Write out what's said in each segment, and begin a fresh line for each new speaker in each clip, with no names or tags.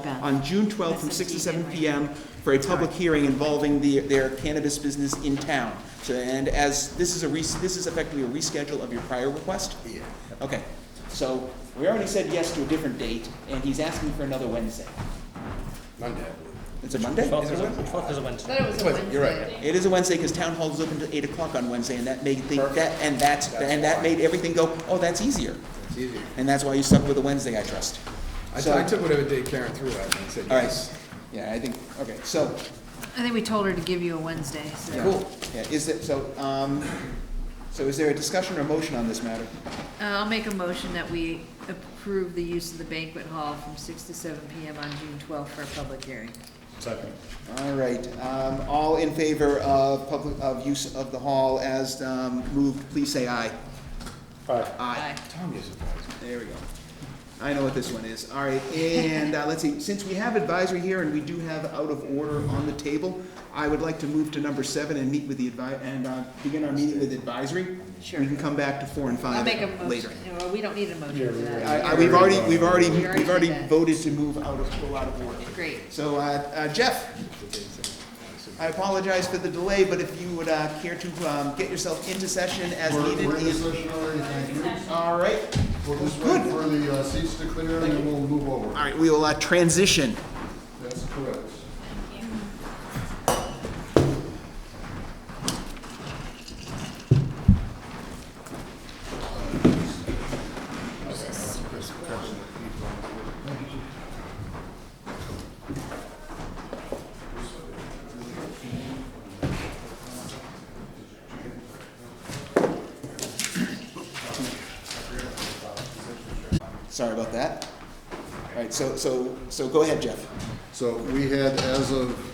event.
on June 12th from 6 to 7
That's indeed,
p.m. for a public hearing involving the, their cannabis business in town. So, and as, this is a, res- this is effectively a reschedule of your prior request?
Yeah.
Okay, so we already said yes to a different date, and he's asking for another Wednesday.
Monday, I believe.
It's a Monday?
Twelfth
Is
is
it
a,
Wednesday?
twelfth is a
I
Wednesday.
thought it was a
Wait,
Wednesday.
you're right.
It is a Wednesday, because town hall is open till 8 o'clock on Wednesday, and that made, think that,
Perfect.
and that's, and that made everything go, oh, that's easier.
It's easier.
And that's why you stuck with a Wednesday, I trust.
I
So-
I took whatever day Karen threw at me and said
All right.
yes.
Yeah, I think, okay, so,
I think we told her to give you a Wednesday, so.
cool. Yeah, is it, so, um, so is there a discussion or motion on this matter?
Uh, I'll make a motion that we approve the use of the banquet hall from six to seven PM on June twelfth for a public hearing.
Second.
All right, um, all in favor of public, of use of the hall as, um, moved, please say aye.
Aye.
Aye.
Aye.
Tom is advising.
There we go. I know what this one is. All right, and, uh, let's see, since we have advisory here and we do have out of order on the table, I would like to move to number seven and meet with the advi, and, uh, begin our meeting with advisory.
Sure.
We can come back to four and
I'll
five
make a
later.
motion, no, we don't need a motion for
I,
that.
I, we've already, we've already,
We already
we've already
did that.
voted to move out of, go out of order.
Great.
So, uh, uh, Jeff, I apologize for the delay, but if you would, uh, care to, um, get yourself into session as
We're-
needed.
We're in the
in-
session already, thank you.
All right,
We'll just
Good.
wait for the uh, seats to clear and then we'll move
all
over.
right, we will, uh, transition.
That's correct.
Sorry about that. All right, so, so, so go ahead, Jeff.
So we had as of,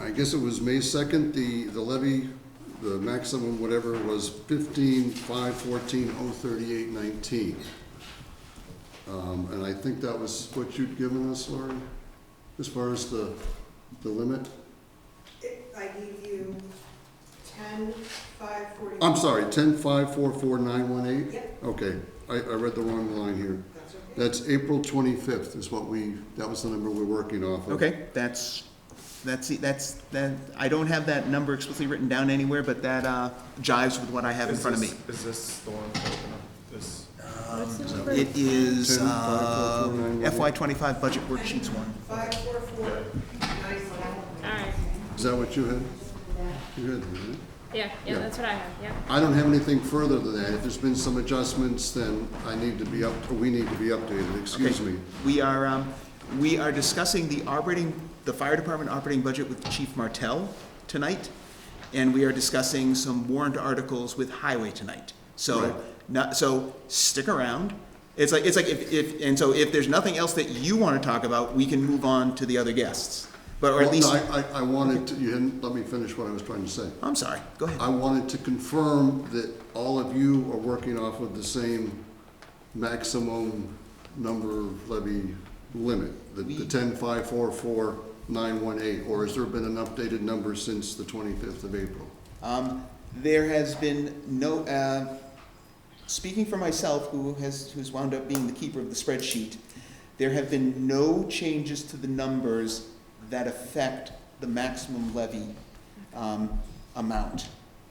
I guess it was May 2nd, the, the levy, the maximum whatever was 15, 5, 14, 038, 19. Um, And I think that was what you'd given us, Lori, as far as the, the limit?
I gave you ten, five, forty.
I'm sorry, ten five four four nine one eight?
Yep.
Okay, I, I read the wrong line here.
That's okay.
That's April twenty-fifth is what we, that was the number we're working off of.
Okay, that's, that's, the- that's, that, I don't have that number explicitly written down anywhere, but that, uh, jives with what I have in front of me.
Is this the one that's open up? This,
It is,
10, 5, 4, 4, 9,
uh,
1.
FY twenty-five budget worksheets one.
Five, four, four, nine, one.
Is that what you had? You had, right?
Yeah, yeah,
Yeah.
that's what I have, yeah.
I don't have anything further than that. If there's been some adjustments, then I need to be up, or we need to be updated, excuse
Okay.
me.
We are, um, we are discussing the operating, the fire department operating budget with Chief Martell tonight, and we are discussing some warrant articles with Highway tonight.
Right.
So, not, so stick around. It's like, it's like if, if, and so if there's nothing else that you want to talk about, we can move on to the other guests. But, or at
Well,
least,
I, I- I wanted to, you didn't let me finish what I was trying to say.
I'm sorry, go ahead.
I wanted to confirm that all of you are working off of the same maximum number levy limit, the, the ten, five, four, four, nine, one, eight, or has there been an updated number since the twenty-fifth of April?
Um, there has been no, uh, speaking for myself, who has, who's wound up being the keeper of the spreadsheet, there have been no changes to the numbers that affect the maximum levy, um, amount.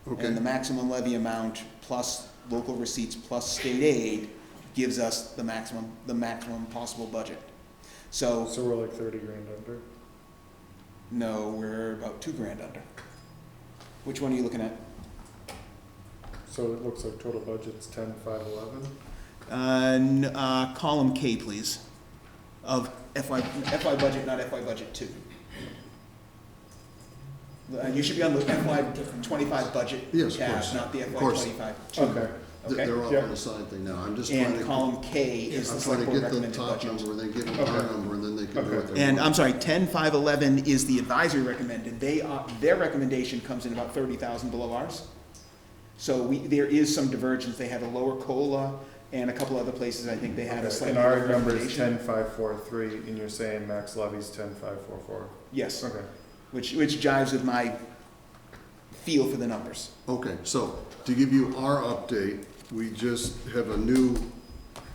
Okay.
And the maximum levy amount plus local receipts plus state aid gives us the maximum, the maximum possible budget. So,
so we're like thirty grand under.
no, we're about two grand under. Which one are you looking at?
So it looks like total budget's ten, five, eleven.
Uh, n- uh, column K, please, of FY, FY budget, not FY budget two. Uh, you should be on the FY twenty-five budget
Yes, of
tab,
course.
not the
Of
FY
course.
twenty-five two.
Okay.
They're-
Okay,
They're all
yeah.
on the side thing now, I'm just trying
and
to.
column K is the
I'm
select
trying to
board
get the
recommended
top
budget.
number, then give them our
Okay.
number, and then they can do what they want.
And I'm sorry, ten, five, eleven is the advisory recommended, they, uh, their recommendation comes in about thirty thousand below ours. So we, there is some divergence, they had a lower COLA, and a couple other places, I think they had a
Okay,
slightly
And
lower
our number is
recommendation.
ten, five, four, three, and you're saying max levy's ten, five, four, four.
Yes.
Okay.
which which jives with my feel for the numbers.
Okay, so to give you our update, we just have a new